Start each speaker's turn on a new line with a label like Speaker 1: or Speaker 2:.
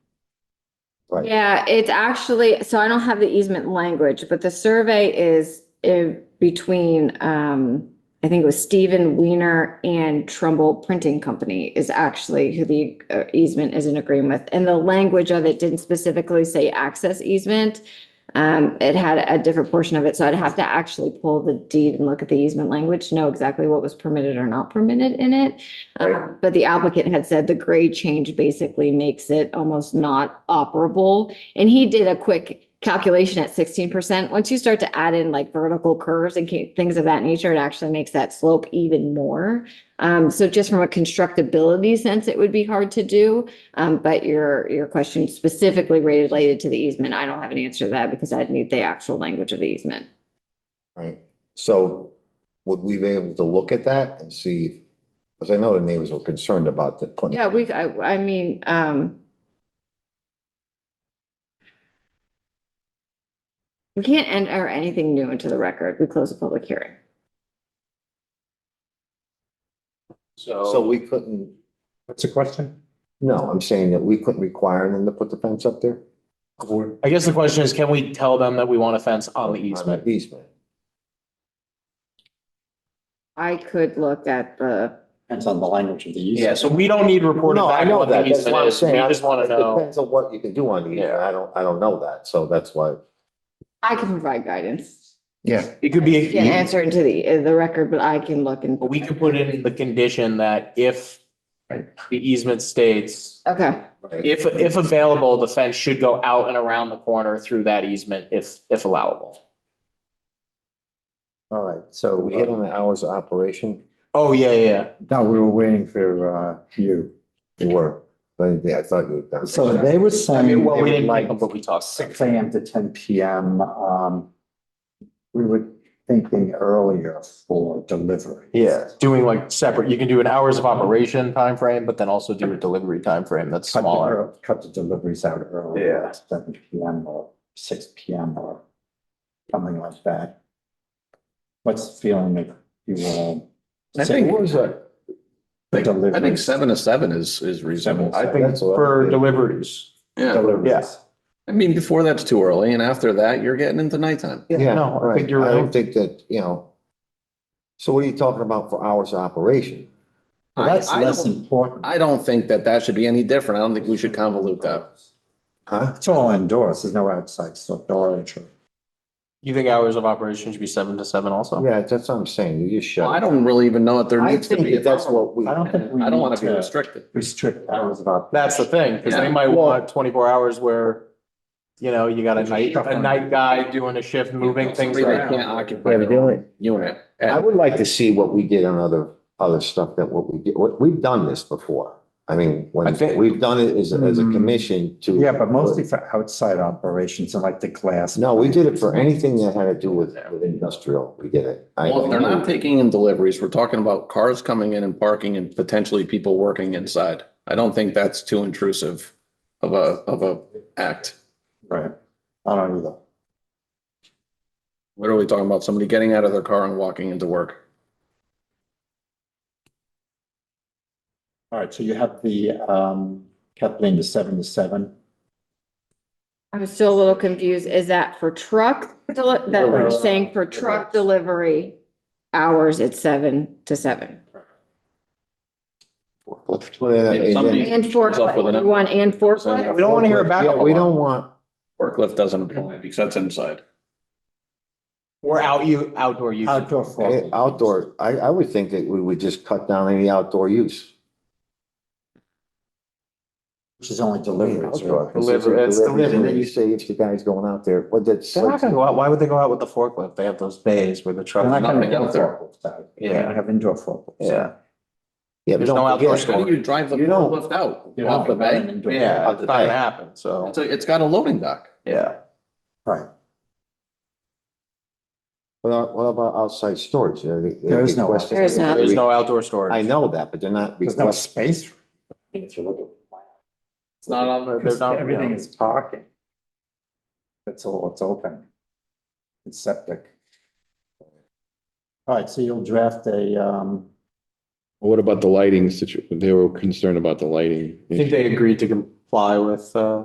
Speaker 1: Right.
Speaker 2: Yeah, it's actually, so I don't have the easement language, but the survey is in between, um, I think it was Stephen Weiner and Trumbull Printing Company is actually who the uh, easement is in agreement with. And the language of it didn't specifically say access easement. Um, it had a different portion of it, so I'd have to actually pull the deed and look at the easement language, to know exactly what was permitted or not permitted in it. Um, But the applicant had said the grade change basically makes it almost not operable. And he did a quick calculation at sixteen percent. Once you start to add in like vertical curves and ca- things of that nature, it actually makes that slope even more. Um, so just from a constructability sense, it would be hard to do. Um, but your, your question specifically related to the easement, I don't have an answer to that because I'd need the actual language of the easement.
Speaker 1: Right, so would we be able to look at that and see? Because I know the neighbors were concerned about the. putting-
Speaker 2: Yeah, we, I, I mean, um. We can't enter anything new into the record. We close the public hearing.
Speaker 1: So we couldn't,
Speaker 3: What's the question?
Speaker 1: no, I'm saying that we couldn't require them to put the fence up there?
Speaker 3: I guess the question is, can we tell them that we want a fence on the easement?
Speaker 1: Easement.
Speaker 2: I could look at the,
Speaker 4: Depends on the language of the use.
Speaker 3: Yeah, so we don't need reported
Speaker 1: No, I
Speaker 3: back
Speaker 1: know
Speaker 3: on the
Speaker 1: that, that's
Speaker 3: easement
Speaker 1: what I'm
Speaker 3: is. We
Speaker 1: saying.
Speaker 3: just want to
Speaker 1: It
Speaker 3: know.
Speaker 1: Depends on what you can do on the easement, I don't, I don't know that, so that's why.
Speaker 2: I can provide guidance.
Speaker 1: Yeah.
Speaker 3: It could be,
Speaker 2: Can't answer into the, uh, the record, but I can look and.
Speaker 3: but we could put in the condition that if the easement states,
Speaker 2: Okay,
Speaker 3: if, if available, the fence should go out and around the corner through that easement if, if allowable.
Speaker 1: All right, so we hit on the hours of operation,
Speaker 3: Oh, yeah, yeah, yeah.
Speaker 5: Uh, No, we were waiting for uh you.
Speaker 1: you were, but yeah, I thought you. were done.
Speaker 5: So they were
Speaker 3: I
Speaker 5: saying.
Speaker 3: mean, well,
Speaker 5: they
Speaker 3: we
Speaker 5: would
Speaker 3: didn't like
Speaker 5: like
Speaker 3: them, but we talked.
Speaker 5: Six AM to ten PM, um, we were thinking earlier for delivery.
Speaker 1: Yeah,
Speaker 3: Doing like separate, you can do an hours of operation time frame, but then also do a delivery time frame that's
Speaker 5: Cut the,
Speaker 3: smaller.
Speaker 5: ear- cut the deliveries out early.
Speaker 3: Yeah.
Speaker 5: Seven PM or six PM or something like that. What's the feeling that you all?
Speaker 6: I think,
Speaker 5: What was
Speaker 1: uh,
Speaker 6: I think, I think
Speaker 5: Deliveries.
Speaker 6: seven to seven is, is reasonable.
Speaker 5: I
Speaker 1: think
Speaker 3: For deliveries.
Speaker 6: Yeah,
Speaker 5: Deliveries.
Speaker 6: I mean, before that's too early and after that, you're getting into nighttime.
Speaker 1: Yeah,
Speaker 3: no, I
Speaker 1: right.
Speaker 3: think you're
Speaker 1: I don't
Speaker 3: right.
Speaker 1: think that, you know. So what are you talking about for hours of operation?
Speaker 5: Well,
Speaker 6: I-
Speaker 5: That's
Speaker 6: I
Speaker 5: less
Speaker 6: don't-
Speaker 5: important.
Speaker 6: I don't think that that should be any different. I don't think we should convolute that.
Speaker 1: Huh?
Speaker 5: It's all indoors. There's no outside storage or
Speaker 3: You think hours of operation should be seven to seven also?
Speaker 1: Yeah, that's what I'm saying, you just
Speaker 6: Well,
Speaker 1: shut.
Speaker 6: I
Speaker 1: it.
Speaker 6: don't really even know what there
Speaker 1: I
Speaker 6: needs to be.
Speaker 1: think that's what we.
Speaker 5: I don't think we
Speaker 6: I don't want
Speaker 5: need
Speaker 6: to be restricted.
Speaker 5: restrict hours of operation.
Speaker 3: That's the thing, because they might want twenty-four hours where, you know, you got a night, a night guy doing a shift, moving things
Speaker 6: Somebody that
Speaker 3: around.
Speaker 6: Can't occupy their own
Speaker 1: doing.
Speaker 6: unit.
Speaker 1: I would like to see what we did on other, other stuff that what we did, what, we've done this before. I mean,
Speaker 3: I
Speaker 1: when,
Speaker 3: think-
Speaker 1: we've done it as, a- as a
Speaker 3: Mm-hmm.
Speaker 5: Hmm.
Speaker 1: commission to.
Speaker 5: Yeah, but mostly for outside operations and like the glass.
Speaker 1: No, we did it for anything that had to do with, with industrial, we did it. I-
Speaker 6: Well, if they're not taking in deliveries, we're talking about cars coming in and parking and potentially people working inside. I don't think that's too intrusive of a, of a act.
Speaker 5: Right. I don't either.
Speaker 6: What are we talking about? Somebody getting out of their car and walking into work.
Speaker 5: All right, so you have the, um, Kathleen, the seven to seven.
Speaker 2: I'm still a little confused. Is that for truck, deli- that we're
Speaker 5: Delivery.
Speaker 2: saying for truck delivery? Hours at seven to seven
Speaker 1: Well, yeah,
Speaker 6: If somebody-
Speaker 1: yeah.
Speaker 2: and
Speaker 6: Up with an-
Speaker 2: forklift, you want and forklift?
Speaker 3: We don't want to hear a
Speaker 1: Yeah,
Speaker 3: backup
Speaker 1: we
Speaker 3: alarm.
Speaker 1: don't want,
Speaker 6: Forklift doesn't apply because that's inside.
Speaker 3: Or out you, outdoor use.
Speaker 5: Outdoor.
Speaker 1: eh,
Speaker 5: forward.
Speaker 1: outdoor, I, I would think that we would just cut down any outdoor use.
Speaker 5: Which is only deliveries, right?
Speaker 3: Deliver- it's
Speaker 1: And then
Speaker 3: delivery.
Speaker 1: you say if the guy's going out there, well, that's.
Speaker 3: They're not gonna go out, why would they go out with the forklift? They have those bays where the
Speaker 5: They're not
Speaker 3: truck.
Speaker 5: gonna
Speaker 6: Nothing
Speaker 5: get
Speaker 6: out there.
Speaker 5: forklifts out. They're
Speaker 3: Yeah,
Speaker 5: gonna have indoor forklifts.
Speaker 3: yeah.
Speaker 1: Yeah, but
Speaker 3: There's no
Speaker 1: don't
Speaker 3: outdoor
Speaker 1: forget,
Speaker 6: How do you drive the
Speaker 1: You don't-
Speaker 6: forklift out?
Speaker 5: You
Speaker 6: Off
Speaker 5: know,
Speaker 6: the
Speaker 5: not
Speaker 6: bay?
Speaker 5: an indoor-
Speaker 3: Yeah,
Speaker 1: Out
Speaker 3: it's
Speaker 1: the
Speaker 3: not gonna
Speaker 1: back.
Speaker 3: happen, so,
Speaker 6: It's a- it's got a loading dock.
Speaker 3: yeah.
Speaker 5: Right.
Speaker 1: Well, what about outside storage? Are they-
Speaker 5: There is no
Speaker 1: requesting-
Speaker 5: outside.
Speaker 2: There is none.
Speaker 3: There's no outdoor storage.
Speaker 1: I know that, but they're not
Speaker 5: There's no
Speaker 1: requesting,
Speaker 5: space. If you look at. the plan.
Speaker 3: It's not on, the- they're
Speaker 5: Because
Speaker 3: not.
Speaker 5: Everything is parking. That's all, it's open. It's septic. All right, so you'll draft a, um,
Speaker 7: What about the lighting situ, they were concerned about the lighting.
Speaker 3: I think they agreed to comply with, uh.